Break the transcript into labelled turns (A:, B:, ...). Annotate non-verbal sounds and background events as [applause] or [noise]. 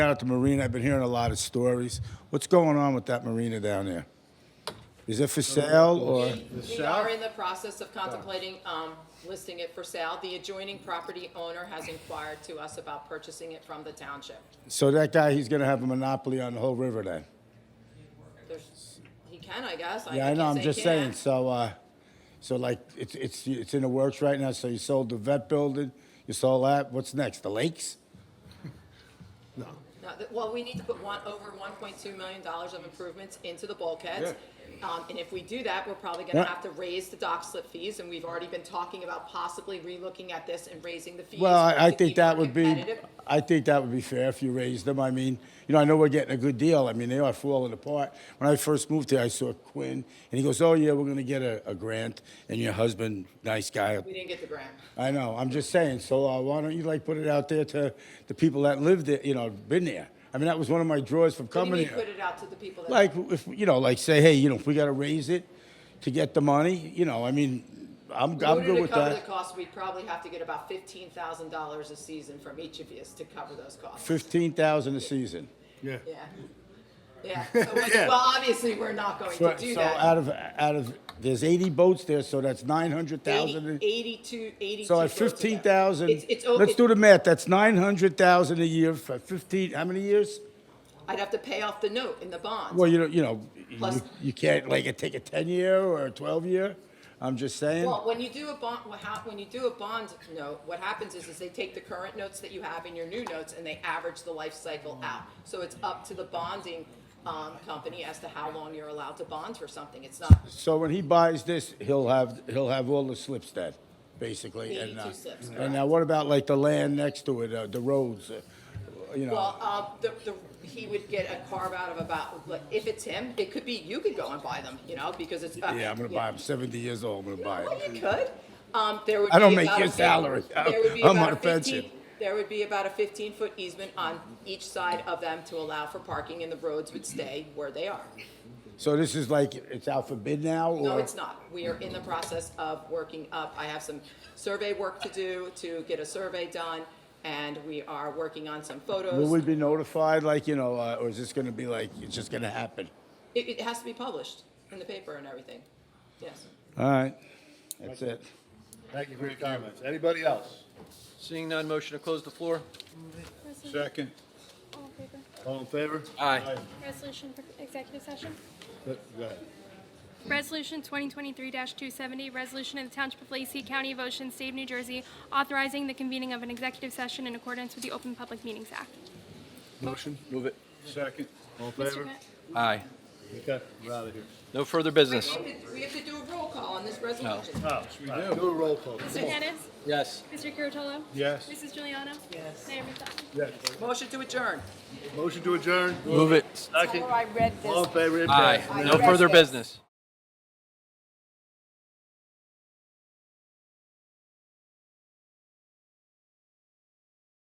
A: Down at the marina, I've been hearing a lot of stories. What's going on with that marina down there? Is it for sale or?
B: We are in the process of contemplating um, listing it for sale. The adjoining property owner has inquired to us about purchasing it from the township.
A: So that guy, he's gonna have a monopoly on the whole river then?
B: There's- He can, I guess.
A: Yeah, I
B: can't
A: know, I'm
B: say he
A: just saying,
B: can't.
A: so, uh, so like, it's, it's, it's in the works right now, so you sold the vet building, you sold that, what's next, the lakes?
B: No, th- Well, we need to put one, over $1.2 million of improvements into the bulkheads. Um, And if we do that, we're probably going to
A: Yeah.
B: have to raise the dock slip fees. And we've already been talking about possibly relooking at this and raising the fees.
A: Well, I, I
B: to
A: think
B: keep them
A: that would be,
B: competitive.
A: I think that would be fair if you raised them. I mean, you know, I know we're getting a good deal. I mean, they are falling apart. When I first moved here, I saw Quinn, and he goes, "Oh yeah, we're gonna get a, a grant." And your husband, nice guy.
B: We didn't get the grant.
A: I know. I'm just saying. So uh, why don't you like put it out there to the people that lived there, you know, been there? I mean, that was one of my draws from
B: What do you
A: coming
B: mean
A: here.
B: put it out to the people that?
A: Like, if, you know, like say, hey, you know, if we gotta raise it to get the money, you know, I mean, I'm, I'm good with
B: In order to cover the
A: that.
B: cost, we'd probably have to get about fifteen thousand dollars a season from each of you to cover those costs.
A: Fifteen thousand a season.
C: Yeah.
B: Yeah.
A: [laughs]
B: Yeah, so, we- well, obviously, we're not going to
A: Right,
B: do
A: so
B: that.
A: out of out of there's 80 boats there, so that's 900,000.
B: Eighty-two, eighty-two.
A: So at
B: boats a day.
A: 15,000,
B: It's, it's, o-
A: let's
B: it-
A: do the math. That's 900,000 a year for 15. How many years?
B: I'd have to pay off the note in the bonds.
A: Well, you know, you know,
B: Plus-
A: you, you can't like take a 10 year or a 12 year. I'm just saying.
B: Well, when you do a bond, what hap- when you do a bond note, what happens is, is they take the current notes that you have in your new notes and they average the life cycle out. So it's up to the bonding, um, company as to how long you're allowed to bond for something. It's not
A: so when he buys this, he'll have he'll have all the slips then, basically. and uh,
B: 82 slips,
A: and now what about like the land next to it, uh, the roads, uh, you know?
B: Well, um, the, the, he would get a carve out of about, like, if it's him, it could be, you could go and buy them, you know, because it's. uh,
A: yeah, I'm gonna buy. I'm 70 years old. I'm gonna buy
B: Well,
A: it.
B: you could. Um, there would
A: I don't
B: be
A: make
B: about
A: your
B: a fif-
A: salary.
B: there would be
A: I'm
B: about
A: on
B: a
A: the fence
B: 15
A: here.
B: There would be about a fifteen-foot easement on each side of them to allow for parking and the roads would stay where they are.
A: So this is like it's out for bid now, or
B: No, it's not. We are in the process of working up. I have some survey work to do to get a survey done and we are working on some
A: will we
B: photos.
A: be notified? Like you know, uh, or is this going to be like it's just going to happen?
B: It, it has to be published in the paper and everything. Yes.
A: All right, that's it.
C: Thank you for your comments. Anybody else?
D: Seeing none, motion to close the floor?
C: Second.
E: All in favor?
C: All in favor?
D: Aye.
E: Resolution for executive session.
C: Go ahead.
E: Resolution 2023-270, resolution of the Township of Lacey, County of Ocean, State of New Jersey, authorizing the convening of an executive session in accordance with the Open Public Meetings Act.
D: Motion. Move it.
C: Second. All in
E: Mr.
C: favor?
E: Grant?
D: Aye.
C: Okay, we're out of here.
D: No further business?
B: We have to- we have to do a roll call on this resolution.
C: Oh, we do. Do a roll call.
E: Mr. Kennis?
D: Yes.
E: Mr. Curatolo?
C: Yes.
E: Mrs. Juliana?
B: Yes.
E: Mayor McDonald?
C: Yes.
B: Motion to adjourn.
C: Motion to adjourn?
D: Move it.
C: Second.
F: Before I read this.
C: All in favor?
D: Aye. No further business?